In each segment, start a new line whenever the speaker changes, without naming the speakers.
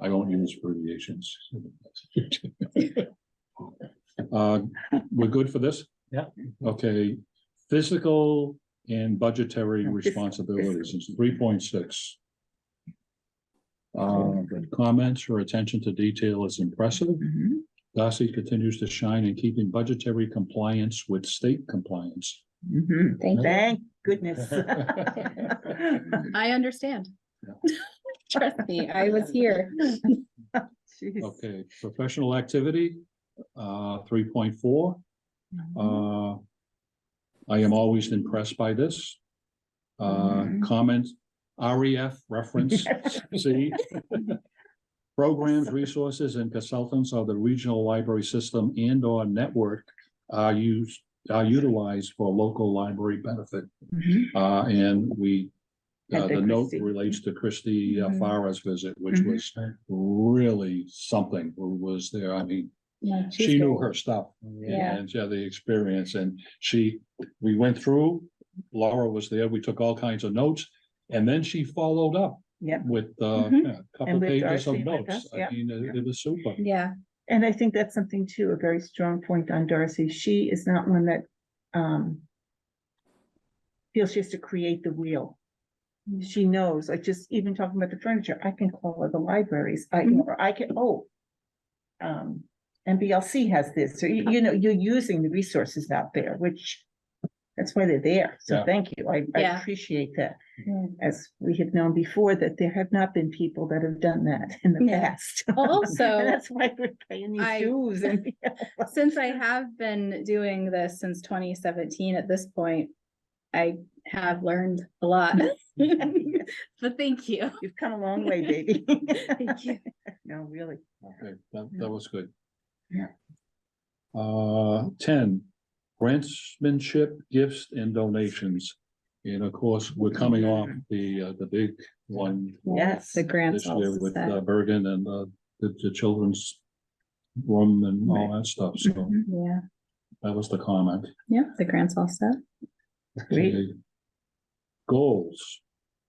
I don't use abbreviations. Uh, we're good for this?
Yeah.
Okay, physical and budgetary responsibilities is three point six. Uh, comments or attention to detail is impressive.
Mhm.
Darcy continues to shine in keeping budgetary compliance with state compliance.
Mhm.
Yeah.
Thank, thank goodness.
I understand.
Yeah.
Trust me, I was here.
Jeez.
Okay, professional activity, uh, three point four.
Mm-hmm.
Uh, I am always impressed by this. Uh,
Mhm.
comment, REF reference, C. Programs, resources, and consultants of the regional library system and or network are used, are utilized for local library benefit.
Mhm.
Uh, and we, uh,
At the
the note
Christie.
relates to Christie uh,
Mhm.
Farah's visit, which
Mhm.
was really something, who was there, I mean,
Yeah, she's
she knew
great.
her stuff.
Yeah.
And she had the experience and she, we went through, Laura was there, we took all kinds of notes. And then she followed up
Yep.
with uh,
Mhm.
yeah, a couple
And with
pages
Darcy
of
with
notes.
us,
I
yeah.
mean, it it was super.
Yeah,
And I think that's something too, a very strong point on Darcy. She is not one that um feels she has to create the wheel.
Mm-hmm.
She knows, like just even talking about the furniture, I can call other libraries, I,
Mm-hmm.
or I can, oh. Um, MBLC has this, or you, you know, you're using the resources out there, which that's why they're there. So
Yeah.
thank you. I I
Yeah.
appreciate that.
Yeah.
As we have known before, that there have not been people that have done that in the
Yeah.
past. And
also,
that's why we're paying
I-
these dues and.
since I have been doing this since twenty seventeen at this point, I have learned a lot. But thank you.
You've come a long way, baby.
Thank you.
No, really.
Okay, that, that was good.
Yeah.
Uh, ten, grantsmanship, gifts and donations. And of course, we're coming off the, uh, the big one
Yes.
The grants.
this year with
that-
uh, Bergen and uh, the, the children's room and all that stuff, so
Mhm.
Yeah,
that was the comment.
yeah, the grants also.
Great.
Okay. Goals,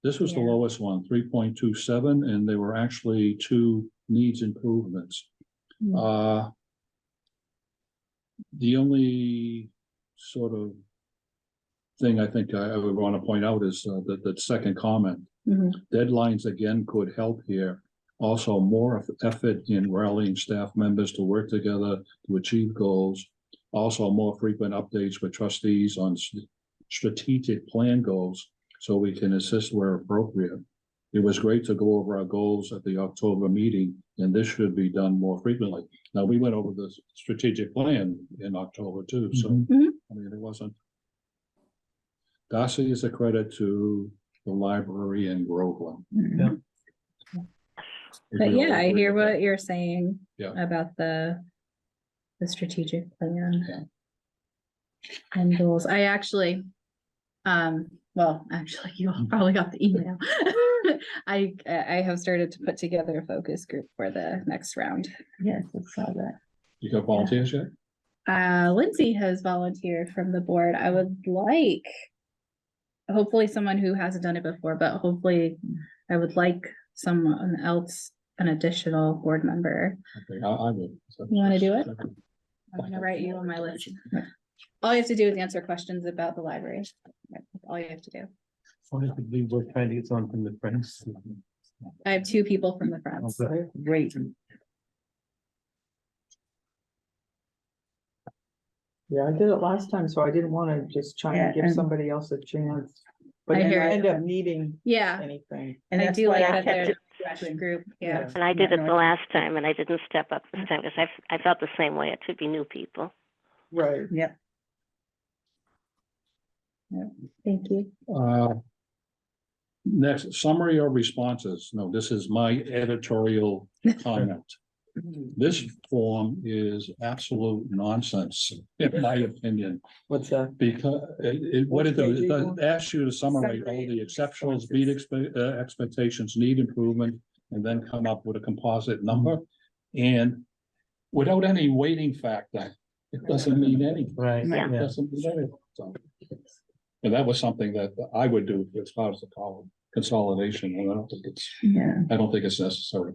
this was the
Yeah.
lowest one, three point two seven, and they were actually two needs improvements.
Hmm.
Uh. The only sort of thing I think I I would want to point out is uh, that, that second comment.
Mhm.
Deadlines again could help here. Also, more of effort in rallying staff members to work together to achieve goals. Also, more frequent updates with trustees on s- strategic plan goals so we can assist where appropriate. It was great to go over our goals at the October meeting, and this should be done more frequently. Now, we went over the strategic plan in October too, so,
Mhm.
Mhm.
I mean, it wasn't. Darcy is a credit to the library in Groveland.
Mhm.
We
But
can all
yeah, I
agree
hear
with that.
what you're saying.
Yeah.
About the, the strategic
Yeah.
plan. And goals, I actually, um, well, actually, you
Mm.
all probably got the email. I, I have started to put together a focus group for the next round.
Yes, I saw that.
You got volunteers yet?
Uh, Lindsay has volunteered from the board. I would like. Hopefully someone who hasn't done it before, but hopefully I would like someone else, an additional board member.
Okay, I, I would.
You wanna do it? I'm gonna write you on my list. All you have to do is answer questions about the library. That's All you have to do.
Honestly, we're trying to get someone from the friends.
I have two people from the Friends.
Great.
Yeah, I did it last time, so I didn't wanna just try
Yeah,
and give
and-
somebody else a chance. But
I
then
hear
I
it.
end up needing
Yeah,
anything.
And
I
that's
do
why
like
I
that
kept
they're
it.
a fresh group, yeah.
And I did
Yeah,
it
no,
the last time and I didn't step up this time because I, I felt the same way. It should be new people.
Right.
Yep.
Thank you.
Uh, Next, summary or responses? No, this is my editorial comment. This form is absolute nonsense, in my opinion,
What's that?
because it, it- what it does, it does asks you to summarize all
Summary
the
and
exceptions,
responses.
beat expe- uh, expectations, need improvement, and then come up with a composite number. And without any weighting factor, it doesn't mean anything.
Right,
Yeah.
yeah.
That's something that I- so. And that was something that I would do as far as the column consolidation, and I don't think it's,
Yeah.
I don't think it's necessary.